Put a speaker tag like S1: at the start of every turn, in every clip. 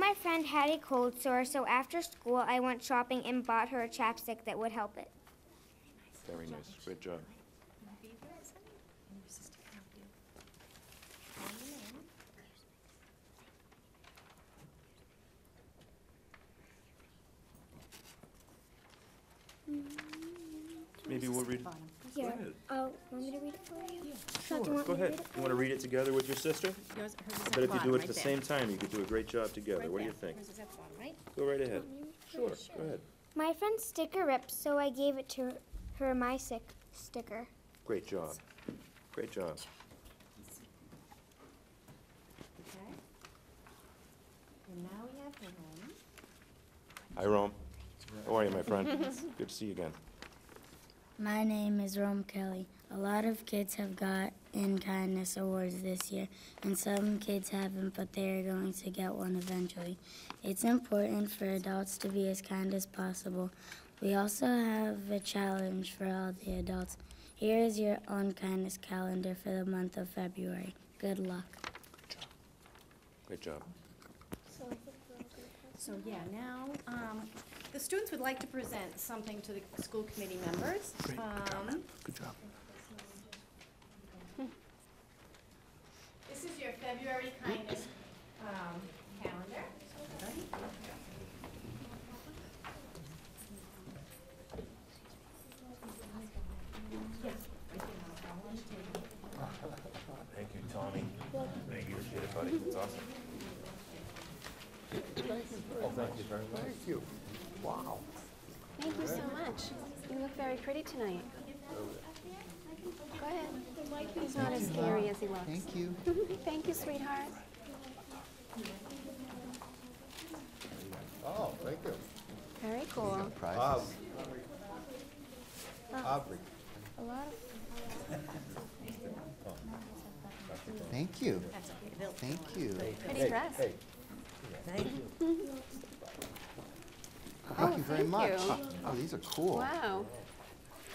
S1: my friend had a cold sore, so after school I went shopping and bought her a chapstick that would help it.
S2: Very nice, good job. Maybe we'll read,
S1: Here.
S2: ahead.
S1: Oh, want me to read it for you?
S2: sure, go ahead. You want to read it together with your sister?
S3: Yours, hers is
S2: I
S3: at
S2: bet
S3: the
S2: if you do
S3: bottom,
S2: it
S3: right
S2: at the
S3: there.
S2: same time, you could do a great job together.
S3: Right
S2: What do you
S3: there.
S2: think?
S3: Hers is at the bottom, right?
S2: Go right ahead. Sure, go ahead.
S1: My friend's sticker ripped, so I gave it to her, my sick sticker.
S2: Great job. Great job.
S3: Okay. And now we have Naomi.
S2: Hi, Rome. How are you, my friend? Good to see you again.
S4: My name is Rome Kelly. A lot of kids have got in kindness awards this year, and some kids haven't, but they are going to get one eventually. It's important for adults to be as kind as possible. We also have a challenge for all the adults. Here is your own kindness calendar for the month of February. Good luck.
S2: Great job.
S3: So, yeah, now, um, the students would like to present something to the school committee members. Um,
S2: Good job.
S3: This is your February kindness, um, calendar.
S2: Thank you, Tommy. Thank you. Appreciate it, buddy. It's awesome. Oh, thank you very much.
S5: Thank you so much. You look very pretty tonight. Go ahead. He's not as scary as he looks.
S6: Thank you.
S5: Thank you, sweetheart.
S7: Oh, thank you.
S5: Very cool. Oh.
S7: Um,
S6: Prizes.
S7: Aubrey,
S5: A lot of
S6: Thank you.
S3: That's okay, they'll-
S6: Thank you.
S5: pretty dress.
S7: hey,
S6: Thank you very
S5: Oh, thank
S6: much.
S5: you.
S6: Oh, these are cool.
S5: Wow.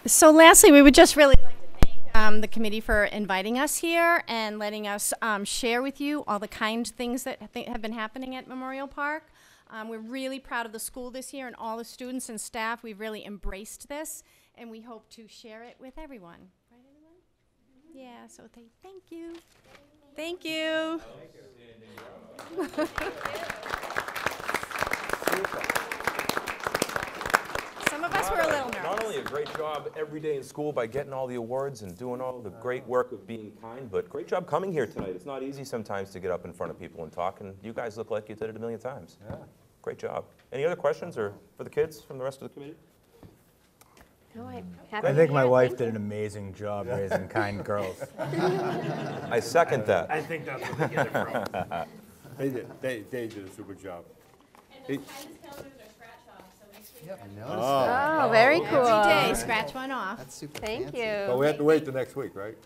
S3: So lastly, we would just really like to thank um, the committee for inviting us here and letting us um, share with you all the kind things that I think have been happening at Memorial Park. Um, We're really proud of the school this year and all the students and staff. We've really embraced this, and we hope to share it with everyone. Right, everyone? Yeah, so thank- thank you. Thank you. Some of us were a little nervous.
S2: Not only a great job every day in school by getting all the awards and doing all the great work of being kind, but great job coming here tonight. It's not easy sometimes to get up in front of people and talk, and you guys look like you did it a million times. Yeah. Great job. Any other questions or for the kids from the rest of the committee?
S5: No, I'm happy
S8: I
S5: to
S8: think my
S5: hear it.
S8: wife
S5: Thank
S8: did an amazing job raising kind girls.
S2: I second that.
S9: I think that's where they get it from.
S7: they did, they, they did a super job.
S6: I noticed that.
S5: Oh, very cool.
S3: Every day, scratch one off.
S6: That's super
S5: Thank
S6: fancy.
S7: But
S5: you.
S7: we have to wait till next week, right?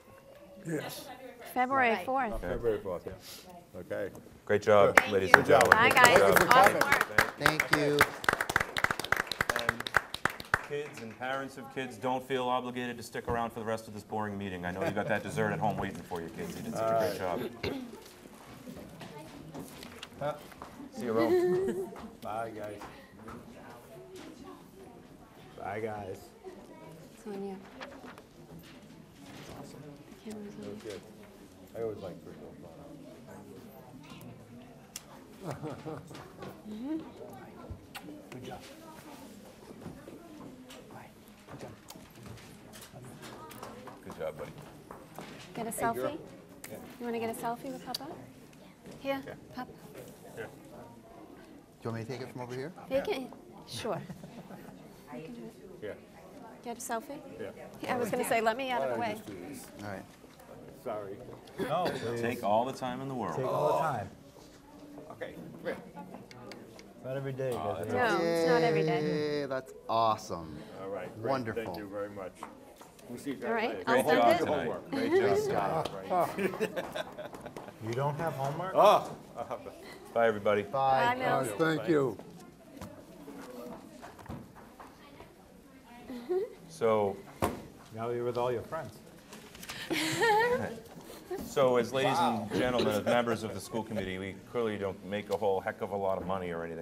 S5: February
S3: Right.
S5: 4th.
S7: February fourth, yeah. Okay.
S2: Great job,
S3: Thank
S2: ladies
S3: you.
S2: and gentlemen.
S5: Bye,
S2: Good
S5: guys.
S2: job.
S5: Awesome work.
S6: Thank you.
S2: Kids and parents of kids, don't feel obligated to stick around for the rest of this boring meeting. I know you got that dessert at home waiting for you, kids. You did such a great job. See you, Rome.
S7: Bye, guys.
S8: Bye, guys.
S5: It's on you. The camera's on you.
S7: Good. I always like Rick O'Connor.
S2: Good job, buddy.
S5: Get a selfie? You want to get a selfie with Papa? Here, Papa.
S6: Do you want me to take it from over here?
S5: Take it. Sure. You can do it.
S7: Yeah,
S5: Get a selfie?
S7: yeah.
S5: Yeah, I was going to say, let me out of the
S7: Why don't I
S5: way.
S7: just do this?
S6: All right.
S7: Sorry.
S2: Take all the time in the world.
S8: Take all the time.
S7: Okay.
S8: Not every day. does it?
S5: No, it's not every day.
S6: Yay, that's awesome.
S7: All right. great.
S6: Wonderful.
S7: Thank you very much. We'll see you guys
S5: All right,
S7: later.
S5: I'll
S2: Great job
S5: send it.
S2: tonight.
S7: Homework.
S2: Great job.
S8: You don't have homework?
S7: Oh,
S2: Bye, everybody.
S5: Bye,
S6: Bye.
S5: Mills.
S7: thank you.
S2: So,
S8: Now you're with all your friends.
S2: So as ladies and gentlemen, as members of the school committee, we clearly don't make a whole heck of a lot of money or anything